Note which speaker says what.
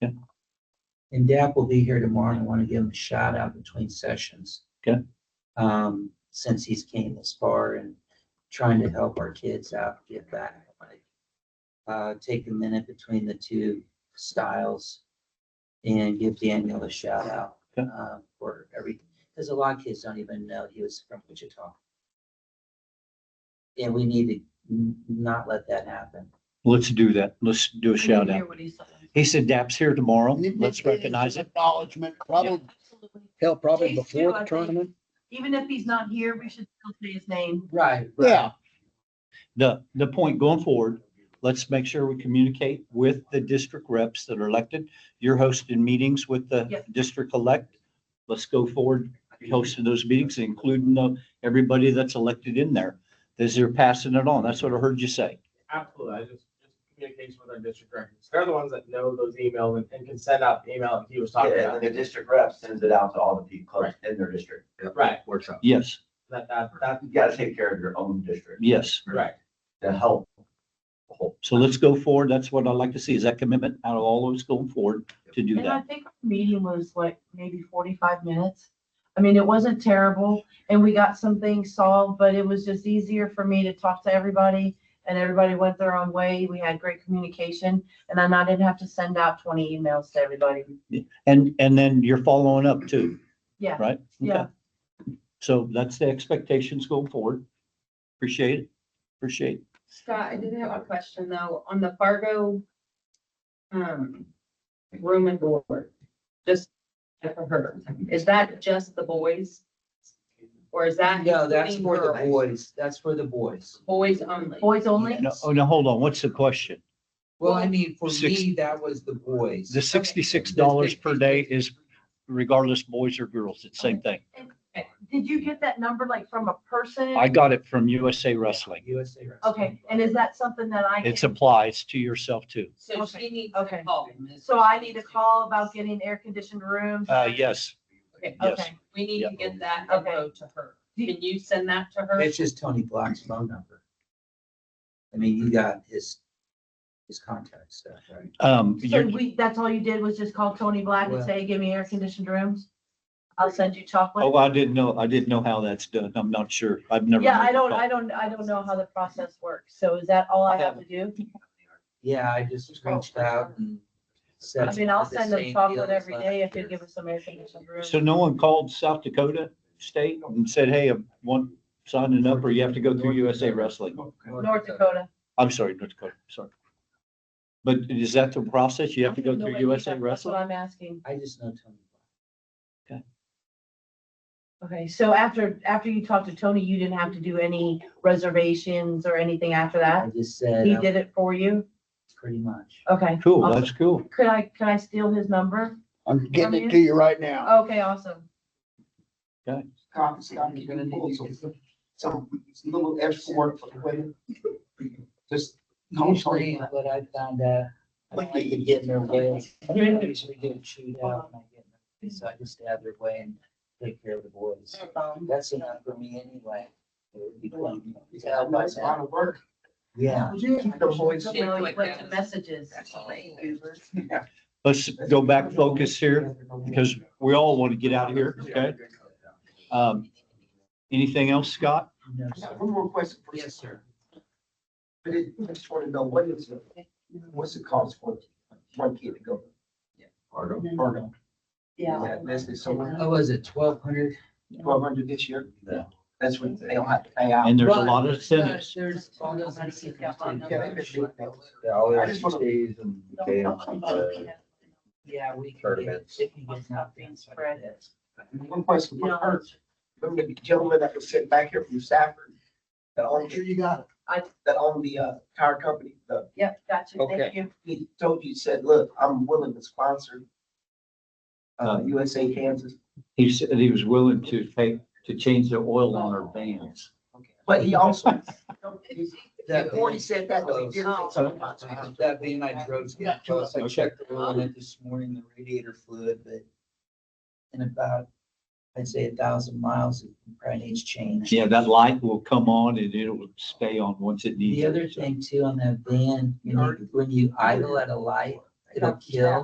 Speaker 1: Yeah.
Speaker 2: And Dak will be here tomorrow, and I want to give him a shout out between sessions.
Speaker 1: Okay.
Speaker 2: Um, since he's came this far and trying to help our kids out, get back. like, Uh, take a minute between the two styles and give Daniel a shout out.
Speaker 1: Okay.
Speaker 2: uh, For every, because a lot of kids don't even know he was from Wichita. And we need to n- not let that happen.
Speaker 1: Let's do that. Let's do a
Speaker 3: We need to
Speaker 1: shout
Speaker 3: hear
Speaker 1: out.
Speaker 3: what he said.
Speaker 1: He said DAP's here tomorrow.
Speaker 4: And it-
Speaker 1: Let's
Speaker 4: it- it's
Speaker 1: recognize it.
Speaker 4: Acknowledgement, probably,
Speaker 3: Absolutely.
Speaker 4: hell, probably
Speaker 3: Please do,
Speaker 4: before
Speaker 3: I
Speaker 4: the
Speaker 3: think.
Speaker 4: tournament.
Speaker 3: Even if he's not here, we should still say his name.
Speaker 2: Right.
Speaker 4: Yeah,
Speaker 1: The, the point going forward, let's make sure we communicate with the district reps that are elected. You're hosting meetings with the
Speaker 3: Yes.
Speaker 1: district elect. Let's go forward, hosting those meetings, including the, everybody that's elected in there. As they're passing it on. That's what I heard you say.
Speaker 5: Absolutely, I just, just communication with our district records. They're the ones that know those emails and, and can send out the email that he was talking
Speaker 6: Yeah,
Speaker 5: about.
Speaker 6: and then the district rep sends it out to all the people close in their district.
Speaker 5: Right,
Speaker 7: Workshop.
Speaker 1: Yes,
Speaker 5: that, that, that,
Speaker 6: You gotta take care of your own district
Speaker 1: yes.
Speaker 5: right.
Speaker 6: to help.
Speaker 1: So let's go forward. That's what I'd like to see is that commitment out of all those going forward to do
Speaker 3: And I
Speaker 1: that.
Speaker 3: think our meeting was like maybe forty-five minutes. I mean, it wasn't terrible and we got some things solved, but it was just easier for me to talk to everybody. And everybody went their own way. We had great communication and then I didn't have to send out twenty emails to everybody.
Speaker 1: And, and then you're following up too,
Speaker 3: Yeah,
Speaker 1: right?
Speaker 3: yeah.
Speaker 1: Okay. So that's the expectations going forward. Appreciate it. Appreciate. it.
Speaker 8: Scott, I did have a question though, on the Fargo, um, room and board, just for her, is that just the boys? Or is that?
Speaker 2: No, that's
Speaker 8: including
Speaker 2: for the
Speaker 8: girls?
Speaker 2: boys. That's for the boys.
Speaker 8: Boys only.
Speaker 3: Boys only?
Speaker 1: No, oh, now hold on. What's the question?
Speaker 2: Well, I mean, for
Speaker 1: Six-
Speaker 2: me, that was the boys.
Speaker 1: The sixty-six dollars per day is regardless boys or girls, it's same thing.
Speaker 3: Did you get that number like from a person?
Speaker 1: I got it from USA Wrestling.
Speaker 2: USA Wrestling.
Speaker 3: Okay, and is that something that I?
Speaker 1: It
Speaker 3: can-
Speaker 1: applies to yourself too.
Speaker 8: So
Speaker 3: Okay,
Speaker 8: she needs
Speaker 3: okay.
Speaker 8: to call.
Speaker 3: So I need a call about getting air conditioned rooms?
Speaker 1: Uh, yes,
Speaker 8: Okay,
Speaker 1: yes.
Speaker 3: Okay.
Speaker 8: we need to
Speaker 1: Yeah.
Speaker 8: get that
Speaker 3: Okay.
Speaker 8: info to her. Can you send that to her?
Speaker 2: It's just Tony Black's phone number. I mean, you got his, his contact stuff, right?
Speaker 1: Um,
Speaker 3: So
Speaker 1: you're,
Speaker 3: we, that's all you did was just call Tony Black and say, give me air conditioned rooms? I'll send you
Speaker 1: oh,
Speaker 3: chocolate.
Speaker 1: I didn't know, I didn't know how that's done. I'm not sure. I've never.
Speaker 3: Yeah,
Speaker 1: made
Speaker 3: I
Speaker 1: the
Speaker 3: don't,
Speaker 1: call.
Speaker 3: I don't, I don't know how the process works. So is that all I have to do?
Speaker 2: Yeah, I just reached out and said.
Speaker 3: I mean, I'll send them
Speaker 2: the same
Speaker 3: chocolate
Speaker 2: deal as
Speaker 3: every day if
Speaker 2: last
Speaker 3: they
Speaker 2: year.
Speaker 3: give us some air conditioned rooms.
Speaker 1: So no one called South Dakota State and said, hey, I want signing up or you have to go through USA Wrestling?
Speaker 3: North Dakota.
Speaker 1: I'm sorry, North Dakota, sorry. But is that the process? You have to go through
Speaker 3: Nobody-
Speaker 1: USA
Speaker 3: That's what
Speaker 1: Wrestling?
Speaker 3: I'm asking.
Speaker 2: I just know Tony.
Speaker 3: Okay, so after, after you talked to Tony, you didn't have to do any reservations or anything after
Speaker 2: Black.
Speaker 3: that?
Speaker 2: I just said,
Speaker 3: He
Speaker 2: uh,
Speaker 3: did it for you?
Speaker 2: pretty much.
Speaker 3: Okay.
Speaker 1: Cool,
Speaker 3: awesome.
Speaker 1: that's cool.
Speaker 3: Could I, could I steal his number?
Speaker 4: I'm getting it to you right now.
Speaker 3: Okay, awesome.
Speaker 9: you're gonna need to get some, some little extra work for the women. Just, no, sorry.
Speaker 2: But I found out, I don't like to get in their way. I usually get chewed out when I get in their way, so I just have their way and take care of the boys. That's enough for me anyway. It would be fun.
Speaker 9: Yeah, that's a lot of work.
Speaker 2: Yeah.
Speaker 9: Keep the boys-
Speaker 3: You know, like what the messages.
Speaker 1: Let's go back focus here because we all want to get out of here, okay? Um, anything else, Scott?
Speaker 2: No,
Speaker 9: I got
Speaker 2: sir.
Speaker 9: One more question. for you.
Speaker 2: Yes, sir.
Speaker 9: I did- I just want to know, what is, it- what's it cost for one kid to go?
Speaker 6: Fargo.
Speaker 2: Mm-hmm.
Speaker 9: Fargo.
Speaker 3: Yeah.
Speaker 9: That's the summer,
Speaker 2: How was it, twelve hundred?
Speaker 9: twelve hundred this year?
Speaker 6: Yeah.
Speaker 9: That's what they don't have to pay out.
Speaker 1: And there's a lot of
Speaker 2: uh,
Speaker 1: incentives.
Speaker 2: There's all those incentives too.
Speaker 9: Yeah, they just-
Speaker 6: Oh, Yeah, all
Speaker 9: I just wanna-
Speaker 6: the fees and camps, uh,
Speaker 2: Yeah, we. can get-
Speaker 6: Tournaments.
Speaker 2: if we get enough things for it.
Speaker 9: One question for her, remember the gentleman that was sitting back here from Stafford? That owned, you got,
Speaker 3: I-
Speaker 9: that owned the, uh, tire company, the
Speaker 3: Yep, gotcha,
Speaker 9: Okay.
Speaker 3: thank you.
Speaker 9: he told you, said, look, I'm willing to sponsor uh,
Speaker 1: Uh,
Speaker 9: USA Kansas,
Speaker 1: He said he was willing to pay, to change the oil on our vans.
Speaker 9: but he also,
Speaker 2: That
Speaker 9: before
Speaker 2: being,
Speaker 9: he said that, though, he did say something about sponsor.
Speaker 2: that being I drove, getting close, I
Speaker 1: Okay.
Speaker 2: checked the oil in it this morning, the radiator fluid, but in about, I'd say a thousand miles, it probably needs change.
Speaker 1: Yeah, that light will come on and it will stay on once it needs.
Speaker 2: The
Speaker 1: it,
Speaker 2: other
Speaker 1: so.
Speaker 2: thing too on that van, you know, when you idle at a light, it'll kill.